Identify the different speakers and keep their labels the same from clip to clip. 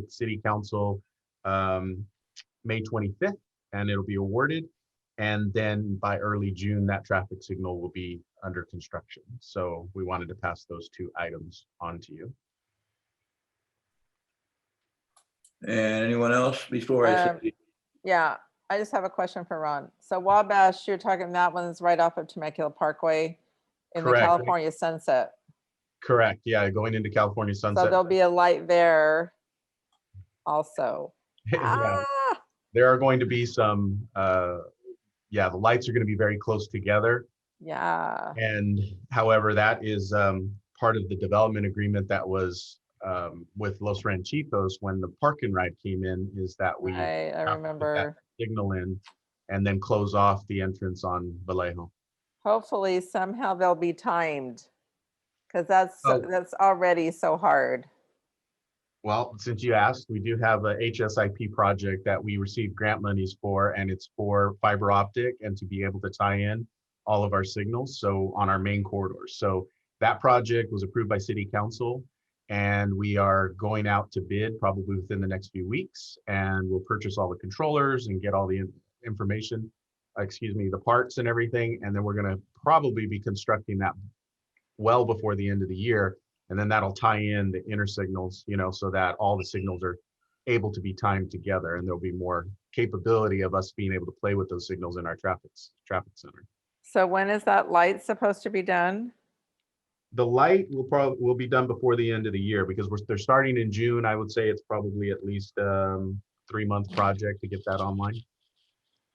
Speaker 1: the city council um, May 25th, and it'll be awarded. And then by early June, that traffic signal will be under construction. So we wanted to pass those two items on to you.
Speaker 2: And anyone else before I
Speaker 3: Um,
Speaker 2: say?
Speaker 3: Yeah, I just have a question for Ron. So Wabash, you're talking, that one's right off of Temecula Parkway in the
Speaker 1: Correct.
Speaker 3: California sunset.
Speaker 1: Correct. Yeah, going into California
Speaker 3: So
Speaker 1: sunset.
Speaker 3: there'll be a light there also.
Speaker 1: Yeah.
Speaker 3: Ah,
Speaker 1: there are going to be some uh yeah the lights are going to be very close together
Speaker 3: Yeah,
Speaker 1: and however that is um part of the development agreement that was um with los ranchitos when the park and ride came in is that we
Speaker 3: right,
Speaker 1: to
Speaker 3: I
Speaker 1: put
Speaker 3: remember.
Speaker 1: signal in and then close off the entrance on vallejo
Speaker 3: Hopefully somehow they'll be timed. Because that's, so-
Speaker 1: Oh.
Speaker 3: that's already so hard.
Speaker 1: well since you asked we do have a hsip project that we received grant monies for and it's for fiber optic and to be able to tie in all of our signals, so on our main corridors. So that project was approved by city council and we are going out to bid probably within the next few weeks and we'll purchase all the controllers and get all the in- information, uh, excuse me, the parts and everything. And then we're going to probably be constructing that well before the end of the year. And then that'll tie in the inner signals, you know, so that all the signals are able to be timed together and there'll be more capability of us being able to play with those signals in our traffic, s- traffic center.
Speaker 3: So when is that light supposed to be done?
Speaker 1: The light will probably, will be done before the end of the year because we're, they're starting in June. I would say it's probably at least, um, three month project to get that online.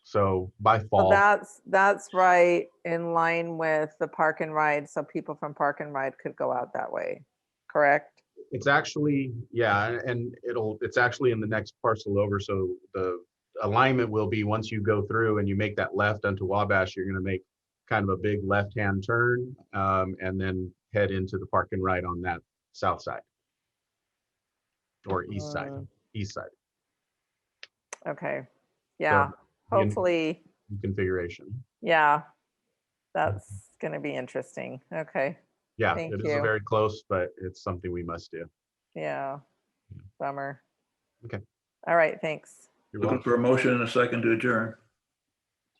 Speaker 1: So by
Speaker 3: Well,
Speaker 1: fall,
Speaker 3: that's, that's right in line with the park and ride, so people from park and ride could go out that way, correct?
Speaker 1: it's actually, yeah, and- and it'll, it's actually in the next parcel over. So the alignment will be, once you go through and you make that left onto Wabash, you're gonna make kind of a big left-hand turn, um, and then head into the park and ride on that south side. Or east side,
Speaker 3: Mm,
Speaker 1: east side
Speaker 3: Okay, yeah,
Speaker 1: you Mm-hmm. know-
Speaker 3: hopefully,
Speaker 1: configuration.
Speaker 3: yeah, that's gonna be interesting, okay,
Speaker 1: Yeah,
Speaker 3: Thank
Speaker 1: it is
Speaker 3: you.
Speaker 1: a very close, but it's something we must do.
Speaker 3: yeah, bummer.
Speaker 1: Okay.
Speaker 3: All right, thanks.
Speaker 1: You're
Speaker 2: Looking
Speaker 1: welcome.
Speaker 2: for a motion and a second to adjourn.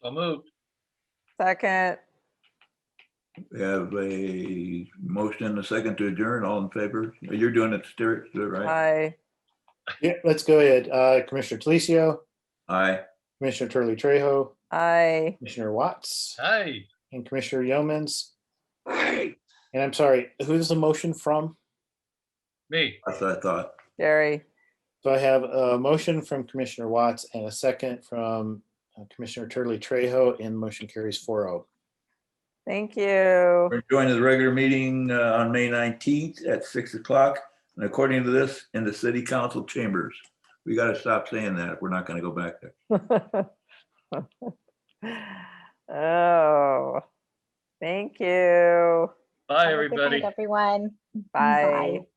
Speaker 4: So moved.
Speaker 3: Second,
Speaker 2: We have a motion and a second to adjourn. All in favor? You're doing it, Stuart, right?
Speaker 3: I,
Speaker 5: Yeah, let's go ahead. Uh, Commissioner Talicio,
Speaker 2: Aye.
Speaker 5: Commissioner Turley Trejo,
Speaker 3: I,
Speaker 5: Commissioner Watts,
Speaker 4: Hi.
Speaker 5: and Commissioner Yeomans. And I'm sorry, who's the motion from?
Speaker 4: Me.
Speaker 2: That's what I thought.
Speaker 3: Jerry,
Speaker 5: So I have a motion from Commissioner Watts and a second from uh, Commissioner Turley Trejo, and motion carries oh. 4-0.
Speaker 3: thank you.
Speaker 2: We're joining the regular meeting uh, on May 19th at 6 o'clock. And according to this, in the city council chambers. We got to stop saying that if we're not going to go back there.
Speaker 3: Oh, thank you.
Speaker 4: Bye,
Speaker 6: Have a good night,
Speaker 4: everybody.
Speaker 6: Everyone.
Speaker 3: Bye.